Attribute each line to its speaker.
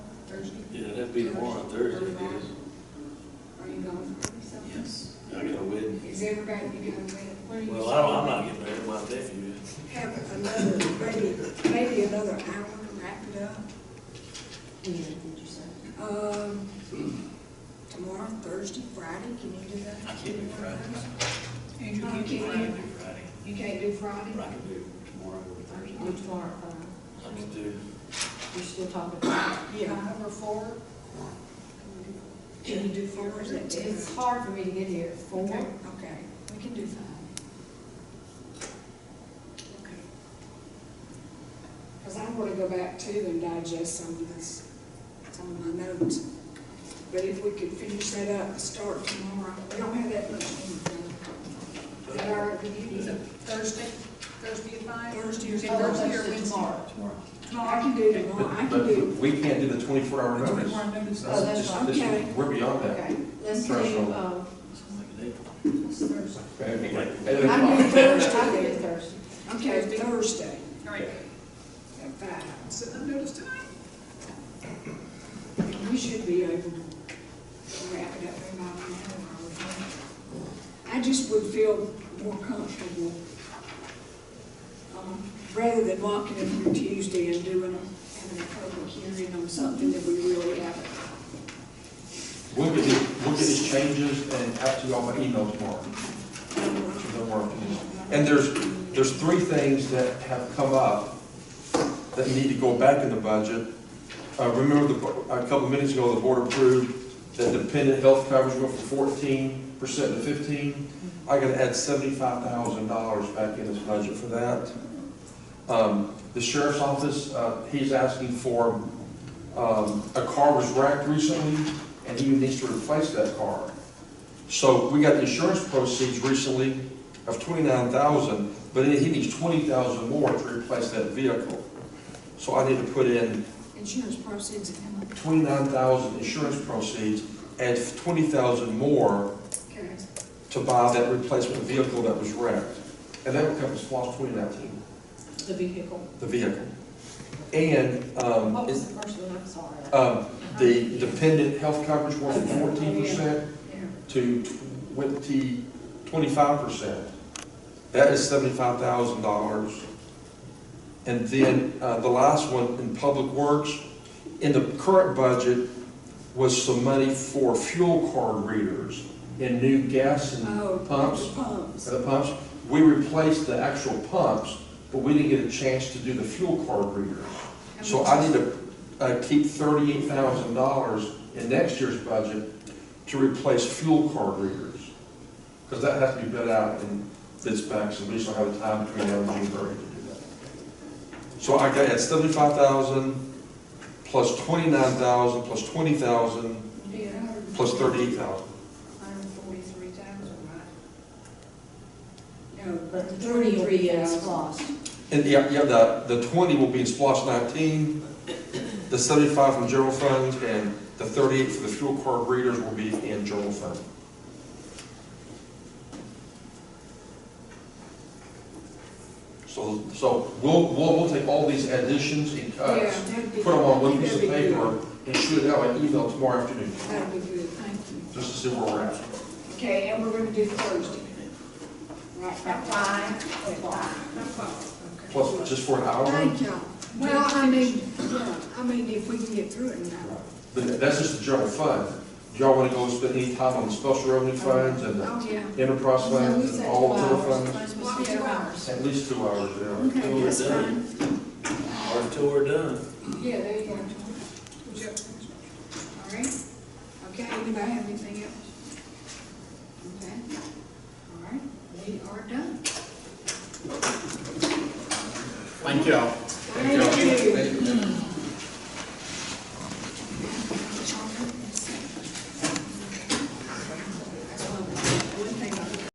Speaker 1: Thursday?
Speaker 2: Yeah, that'd be tomorrow, Thursday, I guess.
Speaker 1: Are you going for something?
Speaker 2: Yes. I got a wedding.
Speaker 1: Is everybody you going to?
Speaker 2: Well, I don't, I'm not getting married, my nephew is.
Speaker 1: Have another, maybe, maybe another hour to wrap it up.
Speaker 3: Yeah, did you say?
Speaker 1: Um, tomorrow, Thursday, Friday, can you do that?
Speaker 2: I can't do Friday.
Speaker 1: Andrew,
Speaker 2: I
Speaker 1: you
Speaker 2: can
Speaker 1: can't,
Speaker 2: do Friday,
Speaker 1: you can't do Friday?
Speaker 2: but I can do tomorrow or Thursday.
Speaker 3: Do tomorrow, uh,
Speaker 2: I can do,
Speaker 3: you're still talking about.
Speaker 1: Yeah. Five or four? Can you do four, or is it ten?
Speaker 3: It's hard for me to get here at four.
Speaker 1: Okay, Okay, we can do five. Okay. Because I want to go back to and digest some of this, some of my notes. But if we could finish that up, start tomorrow, we don't have that much. in the- Is that all right with you? Is it Thursday, Thursday at five? Thursday or Thursday or Wednesday? Tomorrow.
Speaker 4: tomorrow.
Speaker 1: I can do tomorrow, I can do.
Speaker 4: But we can't do the twenty-four hour notice.
Speaker 1: Tomorrow notice.
Speaker 3: Oh, that's
Speaker 4: Just-
Speaker 3: fine.
Speaker 4: this is-
Speaker 1: Okay.
Speaker 4: We're beyond that.
Speaker 3: Okay, let's do,
Speaker 4: Threshold.
Speaker 3: um,
Speaker 2: it's like a day.
Speaker 1: It's Thursday.
Speaker 4: At
Speaker 3: I can
Speaker 4: eight
Speaker 3: do
Speaker 4: o'clock.
Speaker 3: Thursday, I can do Thursday.
Speaker 1: Okay, Thursday
Speaker 5: All right,
Speaker 1: at five.
Speaker 5: set that notice tonight.
Speaker 1: We should be able to wrap it up in about an hour. I would think. I just would feel more comfortable, um, rather than walking in for Tuesday and doing, a- having a public hearing on something that we really haven't.
Speaker 4: We'll get, the- we'll get these changes and out to y'all by email tomorrow.
Speaker 1: done.
Speaker 4: Don't worry. And there's, there's three things that have come up that need to go back in the budget. Uh, remember the, a couple minutes ago, the board approved that dependent health coverage went from fourteen percent to fifteen. I gotta add seventy-five thousand dollars back in this budget for that. Um, the sheriff's office, uh, he's asking for, um, a car was wrecked recently, and he needs to replace that car. So we got the insurance proceeds recently of twenty-nine thousand, but he needs twenty thousand more to replace that vehicle. So I need to put in
Speaker 1: Insurance proceeds and how much?
Speaker 4: twenty-nine thousand insurance proceeds, add twenty thousand more
Speaker 1: Okay.
Speaker 4: to buy that replacement vehicle that was wrecked. And that will come as SLOSS twenty nineteen,
Speaker 3: The vehicle.
Speaker 4: the vehicle. And, um,
Speaker 3: What
Speaker 4: it's-
Speaker 3: was the first one? I'm sorry.
Speaker 4: um, the dependent health coverage went from fourteen percent
Speaker 1: Yeah.
Speaker 4: to twenty, twenty-five percent. That is seventy-five thousand dollars. And then, uh, the last one, in Public Works, in the current budget was some money for fuel card readers and new gas
Speaker 1: Oh,
Speaker 4: and
Speaker 1: the
Speaker 4: pumps.
Speaker 1: pumps.
Speaker 4: The pumps, we replaced the actual pumps, but we didn't get a chance to do the fuel card readers. So I need to, uh, keep thirty-eight thousand dollars in next year's budget to replace fuel card readers. Because that has to be bid out and bids back, so we just don't have the time between now and June thirty to do that. So I got, at seventy-five thousand, plus twenty-nine thousand, plus twenty thousand, plus thirty-eight thousand.
Speaker 1: Hundred and forty-three thousand, right? No,
Speaker 3: But the
Speaker 1: thirty-three
Speaker 3: thirty-three is
Speaker 1: thousand.
Speaker 3: lost.
Speaker 4: And yeah, yeah, the, the twenty will be in splosh nineteen, the seventy-five from general fund, and the thirty-eight for the fuel card readers will be in general fund. So, so we'll, we'll, we'll take all these additions and
Speaker 1: Yeah,
Speaker 4: cuts,
Speaker 1: that'd be.
Speaker 4: put them on
Speaker 1: I
Speaker 4: one
Speaker 1: think
Speaker 4: piece of
Speaker 1: that'd be good.
Speaker 4: paper, and shoot it out by email tomorrow afternoon,
Speaker 1: That'd be good, thank you.
Speaker 4: just to see where we're at.
Speaker 1: Okay, and we're gonna do Thursday. Right, at five o'clock.
Speaker 5: Not five, okay.
Speaker 4: Plus, just for an hour,
Speaker 1: Thank y'all. Well, I mean, yeah, I mean, if we can get through it now.
Speaker 4: but that's just the general fund. Do y'all wanna go spend any time on the special revenue funds and the
Speaker 1: Oh, yeah.
Speaker 4: enterprise funds, and all general funds,
Speaker 3: Mine's supposed to be two hours.
Speaker 4: at least two hours there.
Speaker 1: Okay,
Speaker 2: We're
Speaker 1: that's
Speaker 2: done.
Speaker 1: fine.
Speaker 2: Or until we're done.
Speaker 1: Yeah, there you go.
Speaker 5: Would you have finished?
Speaker 1: All right. Okay, anybody have anything else? Okay. All right, we are done.
Speaker 6: Thank you all.
Speaker 1: Thank you.